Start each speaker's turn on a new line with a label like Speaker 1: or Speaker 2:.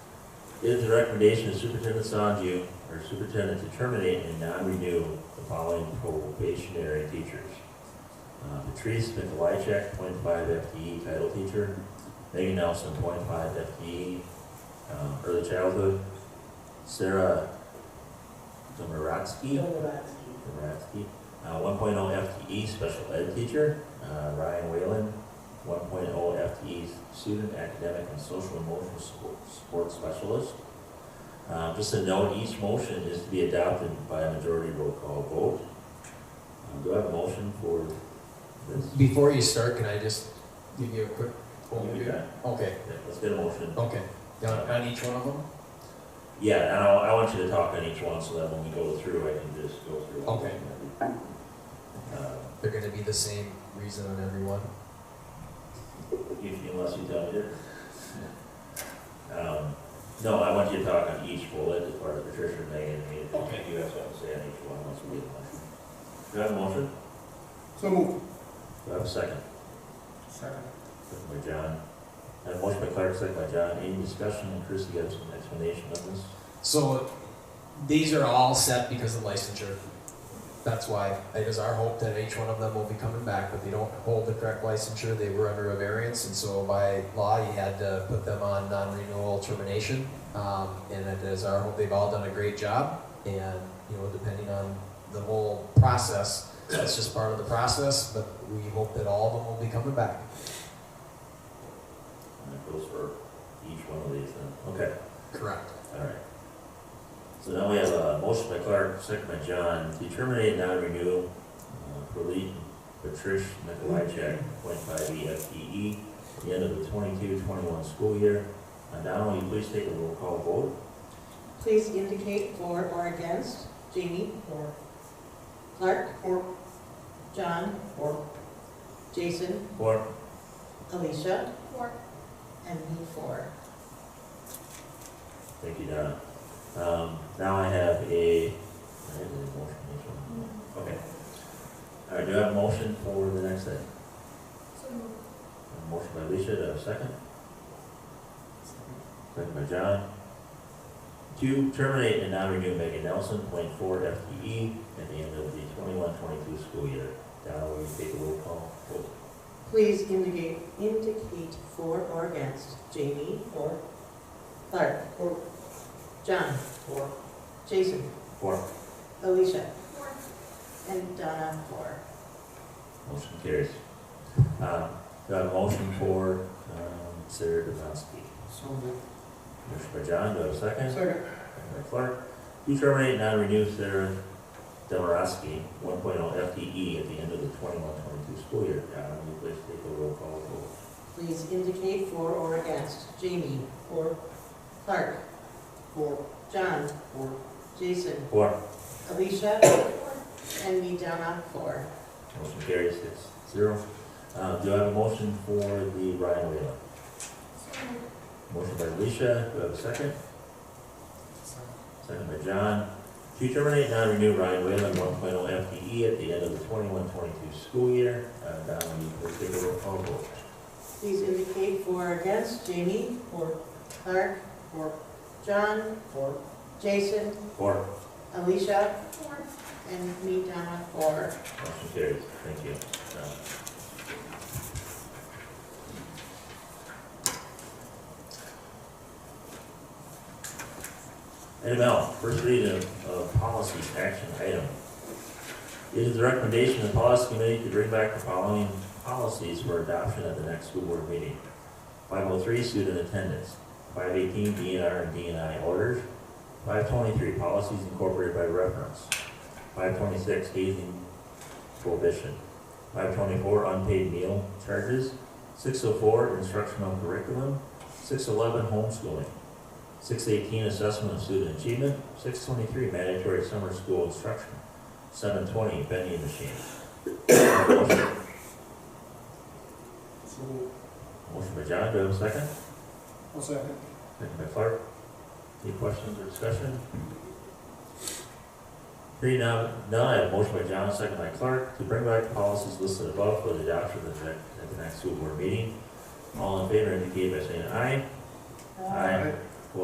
Speaker 1: It is the recommendation of Superintendent Sanju, or superintendent, to terminate and non-renew the following probationary teachers. Uh, Patrice Mikulychak, 0.5 FTE E title teacher. Megan Nelson, 0.5 FTE, um, early childhood. Sarah Domaratsky. Domaratsky, uh, 1.0 FTE E special ed teacher. Uh, Ryan Whalen, 1.0 FTE E student academic and social emotional support- support specialist. Uh, Just a note, each motion is to be adopted by a majority roll call vote. Uh, Do I have a motion for this?
Speaker 2: Before you start, can I just give you a quick overview?
Speaker 1: Yeah,
Speaker 2: Okay,
Speaker 1: Let's get a motion.
Speaker 2: okay. On on each one of them?
Speaker 1: Yeah, and I, I want you to talk on each one so that when we go through, I can just go through. all of
Speaker 2: Okay.
Speaker 1: them.
Speaker 2: They're gonna be the same reason on every one?
Speaker 1: Uh, If, unless you tell me different. Um, no, I want you to talk on each bullet as part of Patricia and Megan, and you-
Speaker 2: Okay.
Speaker 1: you have something to say on each one once we get a motion. Do I have a motion?
Speaker 3: So moved.
Speaker 1: Do I have a second?
Speaker 3: Second.
Speaker 1: Second by John. I have a motion by Clark, second by John. Any discussion? And Chris, you have some explanation on this?
Speaker 2: So these are all set because of licensure. That's why it is our hope that each one of them will be coming back, but they don't hold the correct licensure. They were under a variance, and so by law, you had to put them on non-renewal termination. Um, and it is our hope they've all done a great job. And you know, depending on the whole process, that's just part of the process. But we hope that all of them will be coming back.
Speaker 1: And that goes for each one of these then. Okay.
Speaker 2: Correct.
Speaker 1: Alright. So now we have a motion by Clark, second by John, to terminate non-renewal, uh, for Lee Patrish Nikolajczak, point five E FTE, at the end of the 22-21 school year. And now will you please take a roll call vote?
Speaker 4: Please indicate for or against. Jamie? For. Clark? For. John? For. Jason?
Speaker 1: Four.
Speaker 4: Alicia? For. And me for.
Speaker 1: Thank you, Donna. Um, now I have a, I didn't do the motion, which one? Okay. Alright, do I have a motion for the next thing? A Motion by Alicia, do I have a second? Second by John. Two, terminate and non-renew Megan Nelson, point four FTE, at the end of the twenty-one, twenty-two school year. Donna, will you take a roll call? vote?
Speaker 4: Please indicate, indicate for or against. Jamie? For. Clark? For. John? For. Jason?
Speaker 1: Four,
Speaker 4: Alicia? For. And Donna? For.
Speaker 1: motion carries. Um, do I have a motion for, um, Sarah Devonsky?
Speaker 3: So moved.
Speaker 1: Motion by John, do I have a second?
Speaker 3: Second.
Speaker 1: Second by Clark. To terminate and non-renew Sarah Demarowski, one oh, FTE, E, at the end of the twenty-one, twenty-two school year. Donna, will you please take a roll call? vote?
Speaker 4: Please indicate for or against. Jamie? For. Clark?
Speaker 3: Four.
Speaker 4: John?
Speaker 3: Four.
Speaker 4: Jason?
Speaker 1: Four.
Speaker 4: Alicia? And me, Donna, four.
Speaker 1: Motion carries six zero. Uh, do I have a motion for the Ryan Whalen? Motion by Alicia, do I have a second? Second by John. To terminate non-renew Ryan Whalen, one oh FTE E at the end of the twenty-one, twenty-two school year. Uh, Donna, will you please take a roll call vote?
Speaker 4: Please indicate for or against. Jamie? Four. Clark? Four. John? Four. Jason?
Speaker 1: Four.
Speaker 4: Alicia? Four. And me, Donna, four.
Speaker 1: Motion carries, thank you. Uh, Item L, first reading of, of policies, action item. It is the recommendation of the policy committee to bring back the following policies for adoption at the next school board meeting. Five oh three, student attendance. Five eighteen, DNR and DNI orders. Five twenty-three, policies incorporated by reference. Five twenty-six, hazing prohibition. Five twenty-four, unpaid meal charges. Six oh four, instructional curriculum. Six eleven, homeschooling. Six eighteen, assessment of student achievement. Six twenty-three, mandatory summer school instruction. Seven twenty, vending machine. Motion
Speaker 3: So moved.
Speaker 1: motion by John, do I have a second?
Speaker 3: One second.
Speaker 1: Second by Clark. Any questions or discussion? Hearing none, none, I have a motion by John, second by Clark, to bring back the policies listed above for the adoption at the, next- at the next school board meeting. All in favor indicate by saying aye. Aye.